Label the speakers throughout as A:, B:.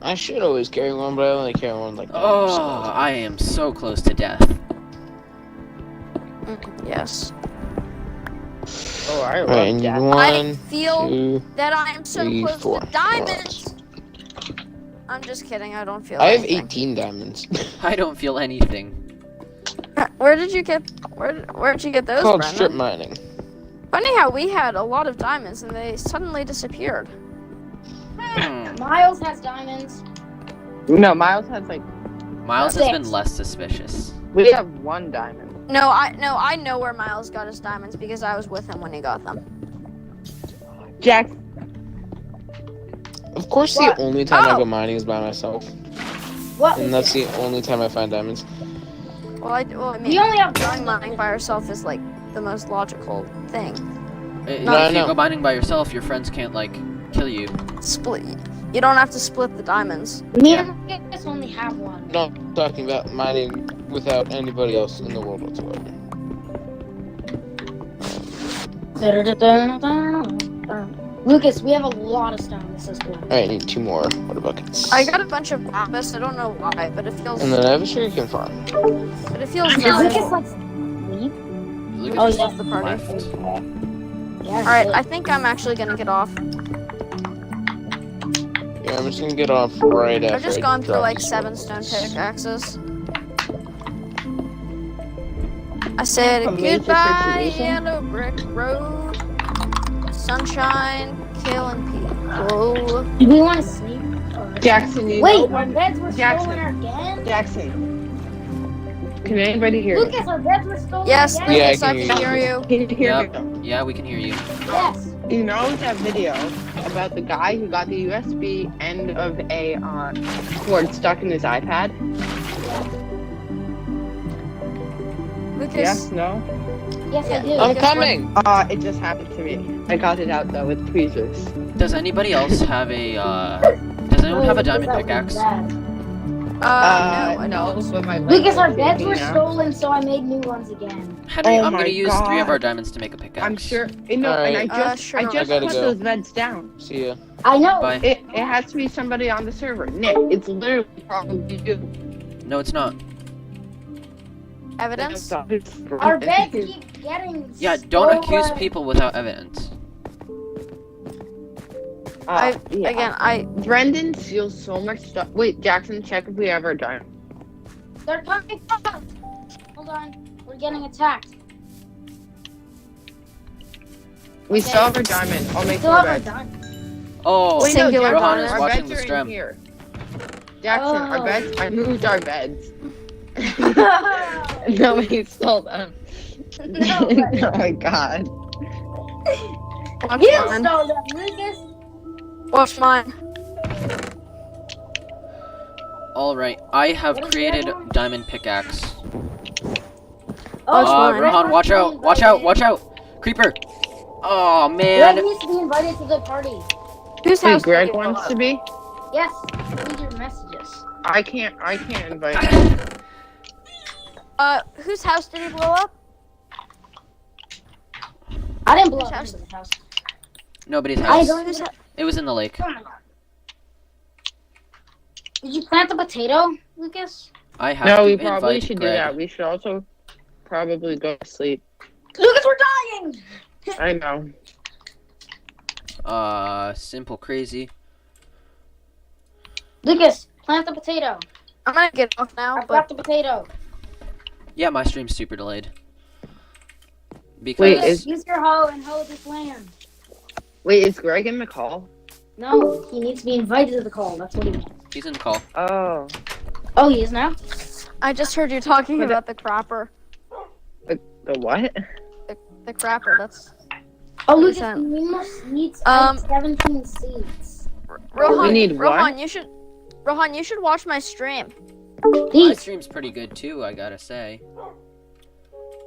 A: I should always carry one, but I only carry one like. that.
B: Oh, I am so close to death.
C: Mm-hmm. Yes.
A: oh, I
D: Alright,
A: love
D: and
A: that.
C: I
D: one,
C: feel
D: two.
C: that I am so
D: three,
C: close
D: four.
C: to diamonds. I'm just kidding. I don't feel.
D: I have
C: anything.
D: 18 diamonds.
B: I don't feel anything.
C: Where did you get? Where Where did you get those,
D: called
C: Brennan?
D: strip mining.
C: Funny how we had a lot of diamonds and they suddenly disappeared.
B: Hmm.
E: Miles has diamonds.
F: No, Miles has like
B: Miles has been
E: Six.
B: less suspicious.
F: we have one diamond.
C: No, I no, I know where Miles got his diamonds because I was with him when he got them.
F: Jack,
D: Of course,
E: What?
D: the only time I
C: Oh.
D: go mining is by myself,
E: What?
D: and that's the only time I find diamonds.
C: Well, I well, I mean,
E: We only have
C: going
E: one
C: mining
E: diamond.
C: by herself is like the most logical thing.
B: Uh,
D: No,
B: if
D: no.
B: you go mining by yourself, your friends can't like kill you.
C: Split. You don't have to split the diamonds.
E: Me and Lucas only have one.
D: No, I'm talking about mining without anybody else in the world whatsoever.
E: Lucas, we have a lot of stone. This is cool.
D: All right, I need two more water buckets.
C: I got a bunch of lapis. I don't know why, but it feels.
D: And then I have a sugarcane farm.
C: But it feels.
E: Is
C: valuable.
E: Lucas like sleep?
B: Look
E: Oh,
B: at
E: yeah.
B: this
C: The party.
B: left.
E: Yeah.
C: All right, I think I'm actually gonna get off.
D: Yeah, I'm just gonna get off right after.
C: I've just
D: I
C: gone through
D: drop
C: like
D: these
C: seven
D: water
C: stone
D: buckets.
C: pickaxes. I said
F: A major
C: goodbye,
F: situation.
C: yellow brick road. Sunshine, kill and people.
E: Do we want to sleep? Or-
F: Jackson, you know
E: Wait, our
F: one-
E: beds were
F: Jackson.
E: stolen again?
F: Jackson. Can anybody hear? me?
E: Lucas, our beds were stolen
C: Yes,
E: again?
D: Yeah,
C: Lucas,
D: I
C: I
D: can
C: can
F: hear
C: hear you.
F: Can you hear
B: Yep.
F: me?
B: Yeah, we can hear you.
E: Yes.
F: You know that video about the guy who got the USB end of a uh, cord stuck in his iPad?
C: Lucas,
F: Yes. No.
E: Yes,
C: Yeah.
E: I do.
D: I'm
C: Guess what?
D: coming.
F: Uh, it just happened to me. I got it out though with tweezers.
B: Does anybody else have a? uh... Does anyone have a
E: Wait,
B: diamond
E: Lucas, that was
B: pickaxe?
E: bad.
C: uh,
F: Uh,
C: no, I
F: no,
C: don't.
F: but my
E: Lucas, our
F: legs-
E: beds were
F: you know.
E: stolen, so I made new ones again.
B: Henry,
F: Oh
B: I'm
F: my
B: gonna use three of
F: God.
B: our diamonds to make a pickaxe.
F: I'm sure. You know,
D: All
F: and I
D: right.
F: just,
C: Uh, sure.
F: I
C: I
F: just
D: gotta
F: put
D: go.
F: those beds down.
D: See ya.
E: I know.
B: Bye.
F: It, it has to be somebody on the server. Nick, it's literally probably you.
B: No, it's not.
C: Evidence?
E: Our beds keep getting
B: Yeah, don't
E: stolen.
B: accuse people without evidence.
F: Uh, yeah.
C: Again, I
F: Brendan steals so much stuff. Wait, Jackson, check if we have our diamond.
E: They're coming up. Hold on. We're getting attacked.
F: We
E: Okay.
F: still have our diamond. I'll make
E: Still
F: more
E: have our
F: beds.
E: diamond.
B: Oh,
C: Wait, no, Singular
B: Rohan
C: Connor.
B: is
F: our
B: watching
F: beds
B: the
F: are in
B: stream.
F: here. Jackson,
E: Oh.
F: our beds. I moved our beds.
E: no,
F: no, he stole them.
E: but
F: oh my god.
C: watch
E: you
C: mine.
E: stole them, Lucas.
C: Watch mine.
B: All right, I have
E: What is
B: created
E: that one?
B: diamond pickaxe.
C: Oh, it's
B: Uh,
C: mine.
B: Rohan, watch out! Watch out! Watch out! Creeper! Oh man!
E: Greg needs to be invited to the party.
C: Whose
F: Wait,
C: house?
F: Greg
C: did you
F: wants
C: go
F: to be.
E: Yes, read your messages.
F: I can't. I can't invite.
C: up? Uh, whose house did he blow up?
E: I didn't blow
C: Whose
E: up
C: house?
E: the house.
B: Nobody's
E: I
B: house.
E: don't even.
C: Whose house?
B: It was in the lake.
E: Oh my God. Did you plant the potato, Lucas?
B: I have
F: No,
B: to
F: we probably
B: invite
F: should
B: Greg.
F: do that. We should also probably go to sleep.
E: Lucas, we're dying.
F: I know.
B: Uh, simple crazy.
E: Lucas, plant the potato.
C: I'm gonna get off now,
E: I
C: but
E: got the potato.
B: Yeah, my stream's super delayed. Because
F: Wait,
E: Lucas,
F: is-
E: use your hoe and hoe this land.
F: Wait, is Greg in the call?
E: No, he needs to be invited to the call. That's what he means.
B: he's in the call.
F: Oh,
E: Oh, he is now.
C: I just heard you talking
F: But- uh,
C: about the cropper.
F: the what?
C: The crapper. That's
E: Oh, Lucas,
C: Who's
E: we need more seats.
C: Um,
E: I have 17 seats.
C: Rohan.
F: We need
C: Rohan,
F: what?
C: you should. Rohan, you should watch my stream.
B: My
E: These.
B: stream's pretty good too, I gotta say.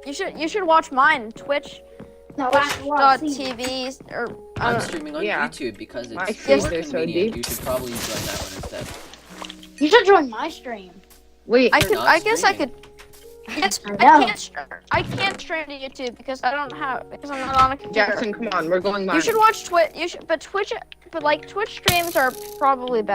C: You should you should watch mine twitch.tv
E: No, that's a lot of seats.
C: or I
B: I'm
C: don't know.
B: streaming on
F: Uh, yeah.
B: YouTube because
F: My
B: it's
F: streams
B: more
F: are so
B: convenient.
F: deep.
B: you should probably join that one instead.
E: You should join my stream.
F: Wait,
C: I
B: You're
C: could
B: not
C: I guess I could
B: streaming.
C: yes, I,
E: I know.
C: can't str- I can't stream to YouTube because I don't have because I'm not on a computer.
F: Jackson, come on, we're going live.
C: you should watch Twitch you should but Twitch but like Twitch streams are probably better.